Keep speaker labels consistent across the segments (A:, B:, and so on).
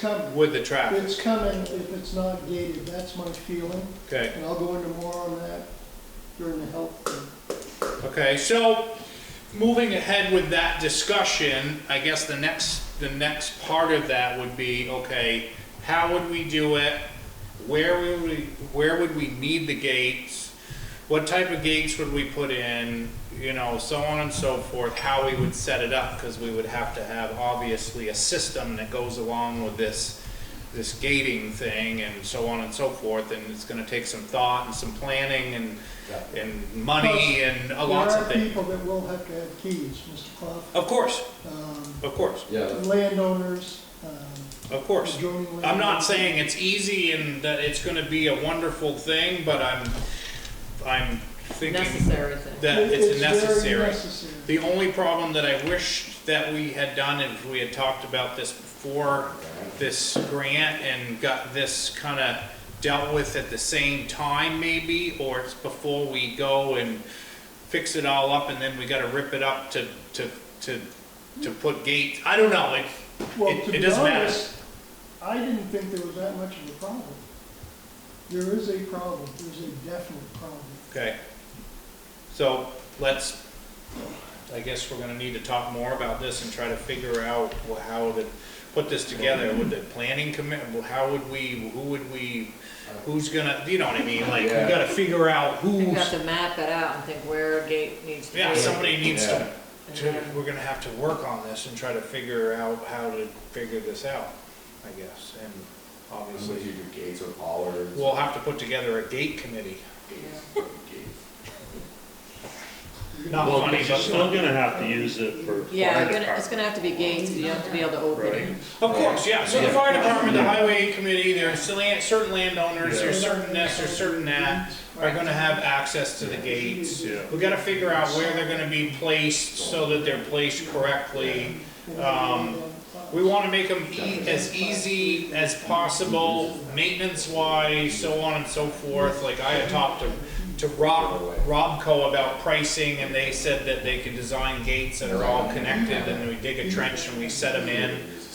A: come,
B: with the
A: if
B: traffic,
A: it's coming, if it's not gated, that's my feeling,
B: okay?
A: and I'll go into more on that during the health. thing.
B: Okay, so moving ahead with that discussion, I guess the next, the next part of that would be, okay, how would we do it? Where would we, where would we need the gates? What type of gates would we put in? You know, so on and so forth, how we would set it up, because we would have to have obviously a system that goes along with this, this gating thing and so on and so forth, and it's gonna take some thought and some planning and, and money and a Oh, lots of
A: There are
B: things.
A: people that will have to have keys, Mr. Clough,
B: Of course,
A: um,
B: of course,
C: Yeah, that's-
A: landowners, um,
B: of course.
A: adjoining landowners.
B: I'm not saying it's easy and that it's gonna be a wonderful thing, but I'm, I'm thinking
D: necessary thing.
B: that it's
A: very
B: necessary.
A: necessary.
B: The only problem that I wish that we had done, if we had talked about this before, this grant and got this kinda dealt with at the same time maybe, or it's before we go and fix it all up and then we gotta rip it up to, to, to, to put gates, I don't know, it's,
A: Well,
B: It-
A: to
B: it
A: be
B: doesn't matter.
A: honest, I didn't think there was that much of a problem. There is a problem, there's a definite problem.
B: Okay. So let's, I guess we're gonna need to talk more about this and try to figure out wha- how to put this together. Would the planning commit, how would we, who would we, who's gonna, you know what I mean? Like, we
C: Yeah.
B: gotta figure out
D: You have
B: who's,
D: to map it out and think where a gate needs to be.
B: yeah, somebody needs to,
D: And
B: to,
D: then-
B: we're gonna have to work on this and try to figure out how to figure this out, I guess. And
C: so you
B: obviously,
C: do gates or pollards.
B: we'll have to put together a gate committee.
C: Gates, gates.
B: Not
E: Well,
B: funny,
E: you're
B: but
E: still gonna have to use it for.
D: Yeah,
E: fire
D: you're gonna- it's gonna have to be gates, you have to be able to open
E: department,
D: it.
E: right?
B: Of course, yeah, so the fire department, the highway committee, there are still land- certain landowners, there's certain this, there's certain that, are gonna have access to the gates.
E: Yeah.
B: We gotta figure out where they're gonna be placed so that they're placed correctly. Um, We wanna make them e- as easy as possible, maintenance-wise, so on and so forth, like I had talked to, to Rob, Robco about pricing, and they said that they could design gates that are all connected, and we dig a trench and we set them in,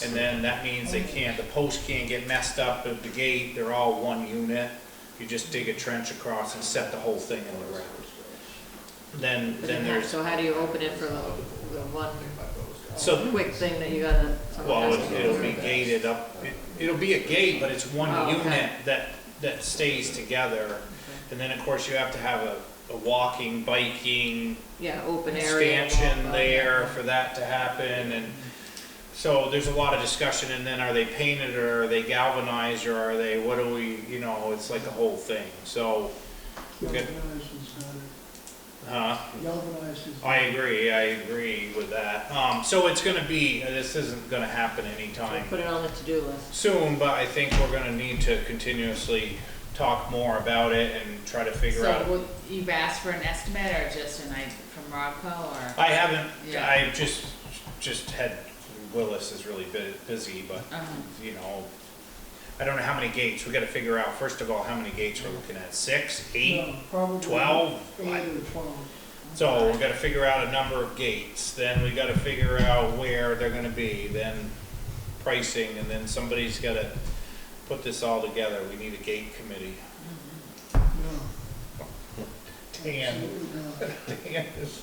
B: and then that means they can't, the post can't get messed up at the gate, they're all one unit. You just dig a trench across and set the whole thing in the ground. Then, then there's,
D: So how do you open it for the, the one
B: so,
D: quick thing that you gotta, someone
B: well,
D: has to
B: it-
D: go
B: it'll be
D: through?
B: gated up, It- it'll be a gate, but it's one
D: Oh, okay.
B: unit that, that stays together. And then, of course, you have to have a, a walking, biking,
D: Yeah, open area.
B: expansion
D: walk-up.
B: there for that to happen, and so there's a lot of discussion, and then are they painted, or are they galvanized, or are they, what do we, you know, it's like a whole thing, so,
A: Galvanized is better.
B: uh,
A: Galvanized is.
B: I agree, I agree with that. Um, so it's gonna be, this isn't gonna happen anytime
D: Put it on the to-do list.
B: soon, but I think we're gonna need to continuously talk more about it and try to figure out.
F: So would- you've asked for an estimate or just an idea from Robco or?
B: I haven't,
F: Yeah.
B: I just, just had, Willis is really bu- busy, but
F: Uh-huh.
B: you know, I don't know how many gates, we gotta figure out, first of all, how many gates we're looking at, six, eight,
A: No, probably
B: twelve?
A: Eight or twelve.
B: So we gotta figure out a number of gates, then we gotta figure out where they're gonna be, then pricing, and then somebody's gotta put this all together, we need a gate committee.
A: No.
B: Dan,
A: absolutely not.
B: Dan is-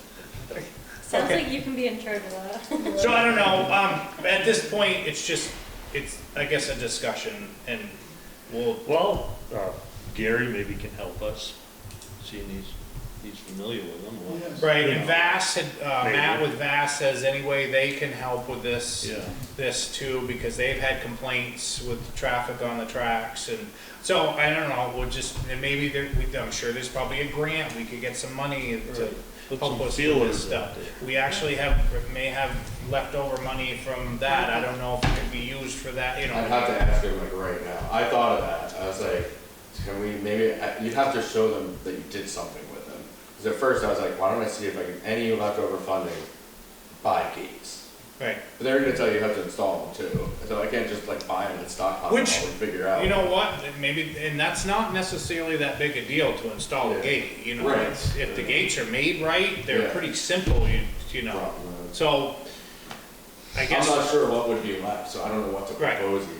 G: Sounds
B: Okay.
G: like you can be in charge of that.
B: So I don't know, um, at this point, it's just, it's, I guess, a discussion, and we'll,
E: Well, uh, Gary maybe can help us, seeing he's, he's familiar with them. well,
A: Yes.
B: right,
E: you
B: and
E: know,
B: Vass, had, uh, Matt
E: Maybe.
B: with Vass says any way they can help with this.
E: Yeah,
B: this too, because they've had complaints with the traffic on the tracks, and so, I don't know, we'll just, and maybe there, we- I'm sure there's probably a grant, we could get some money to
E: Right. put
B: help us
E: some
B: with this
E: feelers
B: stuff.
E: out there.
B: We actually have, may have leftover money from that, I don't know if it could be used for that, you know.
C: I'd have to ask him like right now. I thought of that. I was like, can we maybe, I- you'd have to show them that you did something with them. Cause at first I was like, why don't I see if I can, any leftover funding, buy gates.
B: Right,
C: But they're gonna tell you you have to install them too. So I can't just like buy them and stockpile them all and
B: Which,
C: figure out.
B: you know what, maybe, and that's not necessarily that big a deal to install a
C: Yeah.
B: gate, you know,
C: Right.
B: it's- if the gates are made right, they're
C: Yeah.
B: pretty simple, you, you know,
C: Problem.
B: so, I
C: I'm
B: guess.
C: not sure what would be left, so I don't know what to
B: Right.
C: propose even.